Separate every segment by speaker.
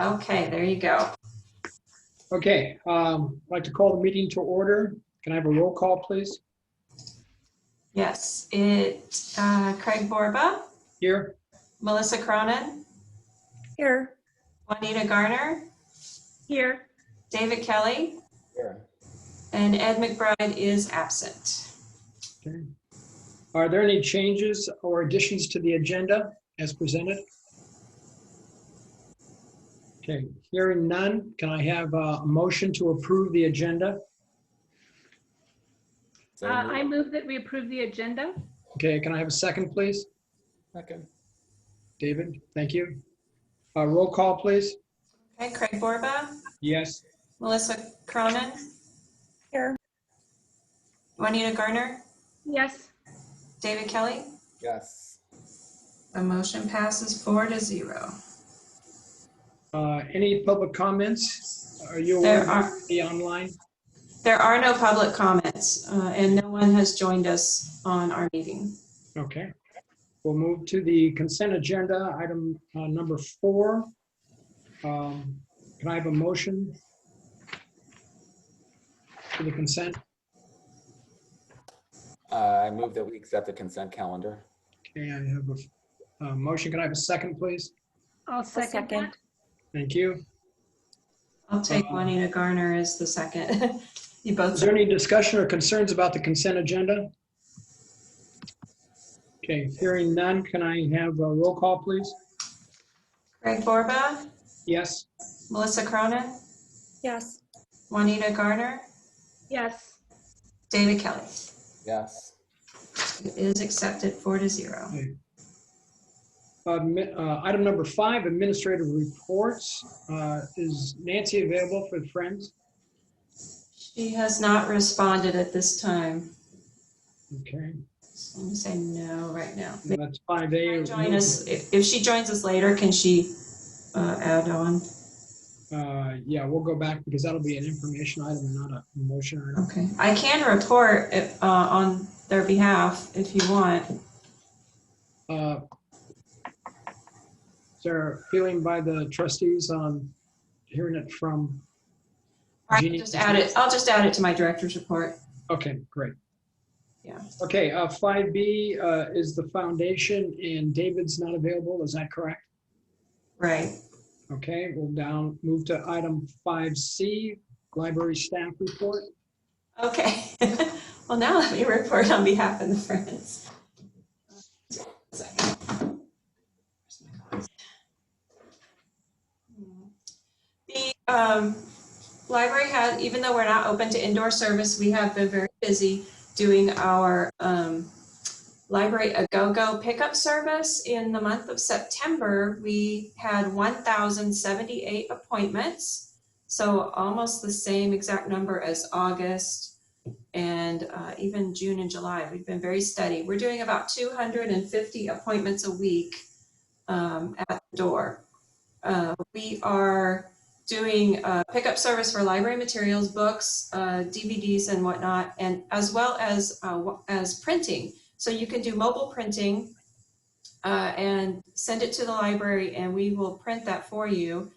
Speaker 1: Okay, there you go.
Speaker 2: Okay, um, I'd like to call the meeting to order. Can I have a roll call, please?
Speaker 1: Yes, it, uh, Craig Borba,
Speaker 2: Here?
Speaker 1: Melissa Cronin,
Speaker 3: Here.
Speaker 1: Juanita Garner,
Speaker 3: Here.
Speaker 1: David Kelly, and Ed McBride is absent.
Speaker 2: Okay. Are there any changes or additions to the agenda as presented? Okay, hearing none, can I have uh, a motion to approve the agenda?
Speaker 4: Uh, I move that we approve the agenda.
Speaker 2: Okay, can I have a second, please?
Speaker 5: Second.
Speaker 2: David, thank you. Uh, Roll call, please.
Speaker 1: Okay, Craig Borba,
Speaker 2: Yes.
Speaker 1: Melissa Cronin,
Speaker 3: Here.
Speaker 1: Juanita Garner,
Speaker 4: Yes,
Speaker 1: David Kelly.
Speaker 5: Yes.
Speaker 1: The motion passes four to zero.
Speaker 2: Uh, Any public comments? Are you aware
Speaker 1: There are.
Speaker 2: of the online?
Speaker 1: There are no public comments, uh, and no one has joined us on our meeting.
Speaker 2: Okay. We'll move to the consent agenda, item uh, number four. Um, Can I have a motion? For the consent,
Speaker 5: Uh, I move that we accept the consent calendar.
Speaker 2: Okay, I have a, a motion, can I have a second, please?
Speaker 4: I'll second
Speaker 3: second.
Speaker 4: that.
Speaker 2: Thank you.
Speaker 1: I'll take
Speaker 2: Um,
Speaker 1: Juanita Garner as the second. You
Speaker 2: Is
Speaker 1: both,
Speaker 2: there any discussion or concerns about the consent agenda? Okay, hearing none, can I have a roll call, please?
Speaker 1: Craig Borba,
Speaker 2: Yes,
Speaker 1: Melissa Cronin,
Speaker 3: Yes.
Speaker 1: Juanita Garner,
Speaker 4: Yes,
Speaker 1: David Kelly.
Speaker 5: Yes.
Speaker 1: It is accepted four to zero.
Speaker 2: Uh, mi- uh, item number five, administrative reports. Uh, Is Nancy available for Friends?
Speaker 1: She has not responded at this time.
Speaker 2: Okay.
Speaker 1: I'm gonna say no right now.
Speaker 2: And That's five A.
Speaker 1: Join us, if if she joins us later, can she uh, add on?
Speaker 2: Uh, yeah, we'll go back because that'll be an information item, not a motion item.
Speaker 1: Okay, I can report if, uh, on their behalf if you want.
Speaker 2: Uh, Is there a feeling by the trustees on hearing it from?
Speaker 1: I can
Speaker 2: Jeannie?
Speaker 1: just add it, I'll just add it to my director's report.
Speaker 2: Okay, great.
Speaker 1: Yeah.
Speaker 2: Okay, uh, five B, uh, is the foundation and David's not available, is that correct?
Speaker 1: Right.
Speaker 2: Okay, we'll down, move to item five C, library staff report.
Speaker 1: Okay. Well, now let me report on behalf of the Friends. The um, library has, even though we're not open to indoor service, we have been very busy doing our um, library a-go-go pickup service. In the month of September, we had 1,078 appointments. So almost the same exact number as August and uh, even June and July. We've been very steady. We're doing about 250 appointments a week um, at the door. Uh, we are doing uh, pickup service for library materials, books, uh, DVDs, and whatnot, and as well as uh, wa- as printing. So you can do mobile printing uh, and send it to the library, and we will print that for you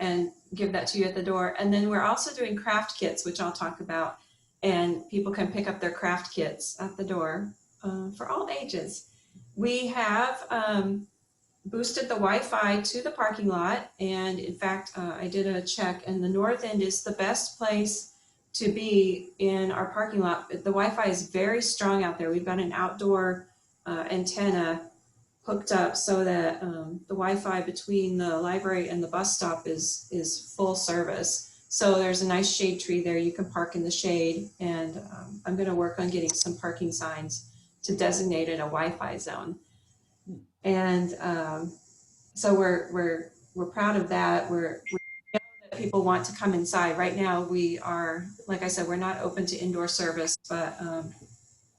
Speaker 1: and give that to you at the door. And then we're also doing craft kits, which I'll talk about. And people can pick up their craft kits at the door uh, for all ages. We have um, boosted the Wi Fi to the parking lot. And in fact, uh, I did a check, and the North End is the best place to be in our parking lot. The Wi Fi is very strong out there. We've got an outdoor uh, antenna hooked up so that um, the Wi-Fi between the library and the bus stop is is full service. So there's a nice shade tree there. You can park in the shade, and um, I'm going to work on getting some parking signs to designate it a Wi-Fi zone. And um, so we're we're we're proud of that. We're we know that people want to come inside. Right now, we are like I said, we're not open to indoor service, but um,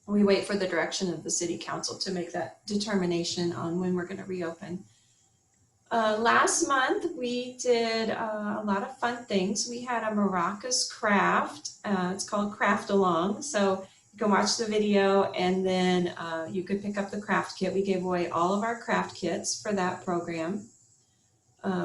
Speaker 1: we wait for the direction of the city council to make that determination on when we're going to reopen. Uh, last month, we did uh, a lot of fun things. We had a maracas craft. Uh, it's called Craft Along. So you can watch the video and then uh, you could pick up the craft kit. We gave away all of our craft kits for that program. Uh,